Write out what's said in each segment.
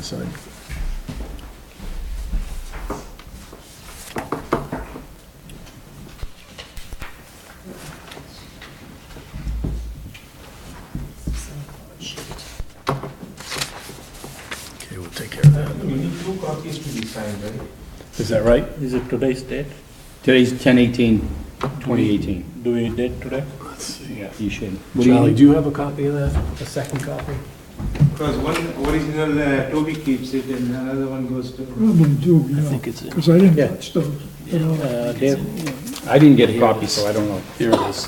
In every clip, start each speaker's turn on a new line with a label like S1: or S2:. S1: sign. Okay, we'll take care of that.
S2: You need two copies to be signed, right?
S1: Is that right?
S3: Is it today's date?
S4: Today's 10/18/2018.
S3: Do we date today?
S1: Let's see.
S4: You should. What do you
S1: Charlie,
S4: need?
S1: do you have a copy of that? A second copy?
S2: Because one original uh, Toby keeps it and another one goes to.
S5: Probably do,
S3: I
S5: yeah,
S3: think it's,
S5: because I didn't
S4: Yeah.
S5: watch those.
S3: uh, Dave,
S4: I didn't get a copy, so I don't know.
S1: Here it is.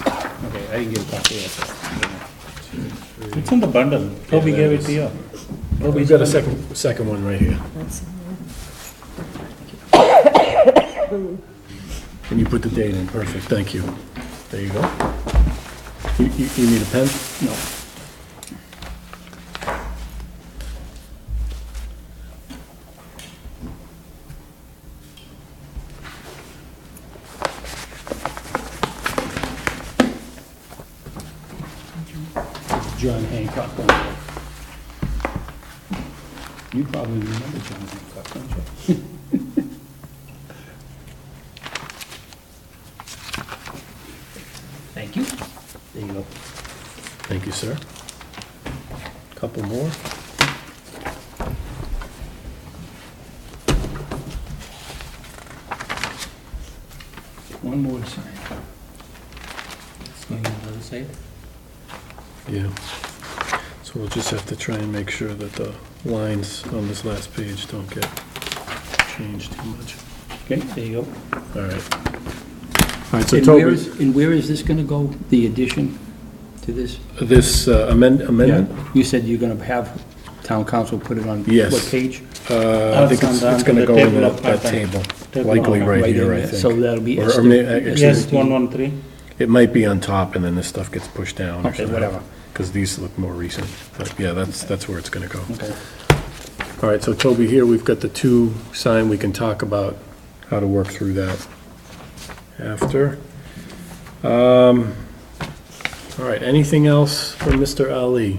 S4: Okay, I didn't get a copy of it.
S3: it's in the bundle. Toby gave it to you.
S1: We've got a second, second one right here. And you put the date in, perfect, thank you. There you go. You, you, you need a pen?
S4: No. John Hancock. one. You probably remember John Hancock, don't you?
S3: Thank you.
S4: There you go.
S1: Thank you, sir. Couple more.
S4: One more sign.
S3: It's going on the other side.
S1: Yeah. So we'll just have to try and make sure that the lines on this last page don't get changed too much.
S4: Okay, there you go.
S1: All right. All right, so
S4: And where
S1: Toby,
S4: is, and where is this gonna go, the addition to this?
S1: this uh, amend- amendment?
S4: You said you're gonna have town council put it on
S1: Yes.
S4: what page?
S1: Uh, I think it's,
S3: Down
S1: it's
S3: to
S1: gonna
S3: the
S1: go in
S3: table
S1: that,
S3: of
S1: that
S3: contents.
S1: table,
S3: Table
S1: likely
S3: of
S1: right
S4: Right
S1: here,
S4: in
S1: I
S4: there. So
S1: think.
S4: that'll be.
S1: Or, or may,
S3: Yes,
S1: actually,
S3: one, one, three.
S1: it might be on top and then this stuff gets pushed down or
S4: Okay,
S1: something.
S4: whatever.
S1: Cause these look more recent, but yeah, that's, that's where it's gonna go.
S4: Okay.
S1: All right, so Toby, here we've got the two sign, we can talk about how to work through that after. Um, all right, anything else from Mr. Ali?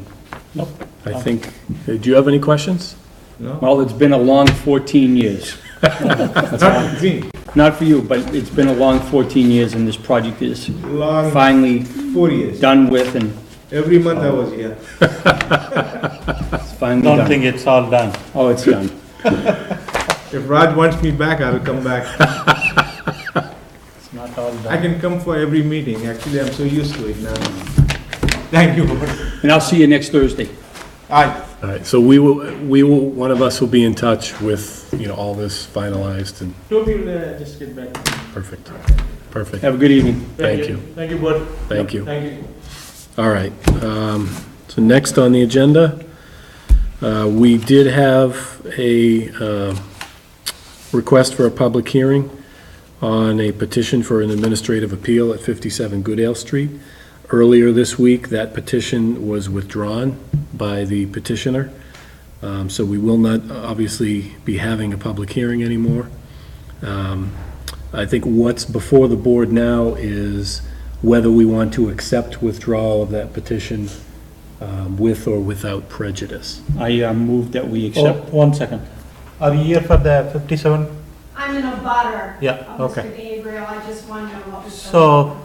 S3: Nope.
S1: I think, uh, do you have any questions?
S2: No?
S4: Well, it's been a long fourteen years.
S2: Not green,
S4: Not for you, but it's been a long fourteen years and this project is
S2: long,
S4: finally
S2: four years.
S4: done with and
S2: Every month I was here.
S4: it's finally
S3: Don't
S4: done.
S3: think it's all done.
S4: Oh, it's done.
S2: If Raj wants me back, I'll come back.
S3: It's not all done.
S2: I can come for every meeting. Actually, I'm so used to it now. Thank you.
S4: And I'll see you next Thursday.
S2: Aye.
S1: All right, so we will, we will, one of us will be in touch with, you know, all this finalized and
S6: Toby will uh, just get back. to you.
S1: perfect, perfect.
S4: Have a good evening.
S1: Thank you,
S6: Thank you, board.
S1: thank you.
S6: Thank you.
S1: All right, um, so next on the agenda, uh, we did have a, uh, request for a public hearing on a petition for an administrative appeal at fifty-seven Goodale Street. Earlier this week, that petition was withdrawn by the petitioner. Um, so we will not obviously be having a public hearing anymore. Um, I think what's before the board now is whether we want to accept withdrawal of that petition um, with or without prejudice.
S4: I uh, move that we
S3: Oh,
S4: accept.
S3: one second. Are you here for the fifty-seven?
S7: I'm in a butter.
S3: Yeah,
S7: of
S3: okay.
S7: Mr. Gabriel, I just wonder what was. the-
S3: So,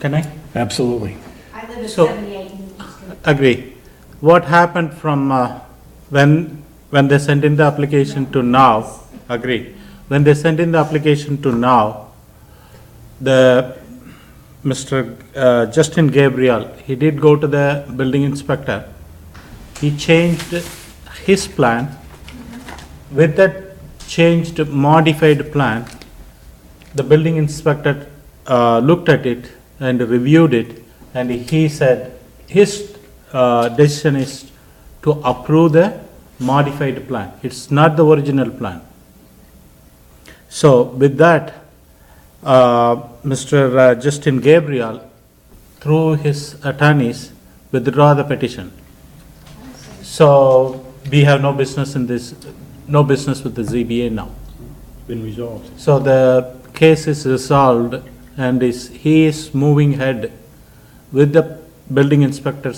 S3: can I?
S1: Absolutely.
S7: I live at
S3: so-
S7: 78 Newton Street.
S3: Agree. What happened from uh, when, when they sent in the application to now, agree, when they sent in the application to now, the, Mr. uh, Justin Gabriel, he did go to the building inspector. He changed his plan. With that changed modified plan, the building inspector uh, looked at it and reviewed it, and he said his uh, decision is to approve the modified plan. It's not the original plan. So with that, uh, Mr. uh, Justin Gabriel, through his attorneys, withdraw the petition. So we have no business in this, no business with the ZBA now.
S4: Been resolved.
S3: So the case is resolved and is, he is moving ahead with the building inspector's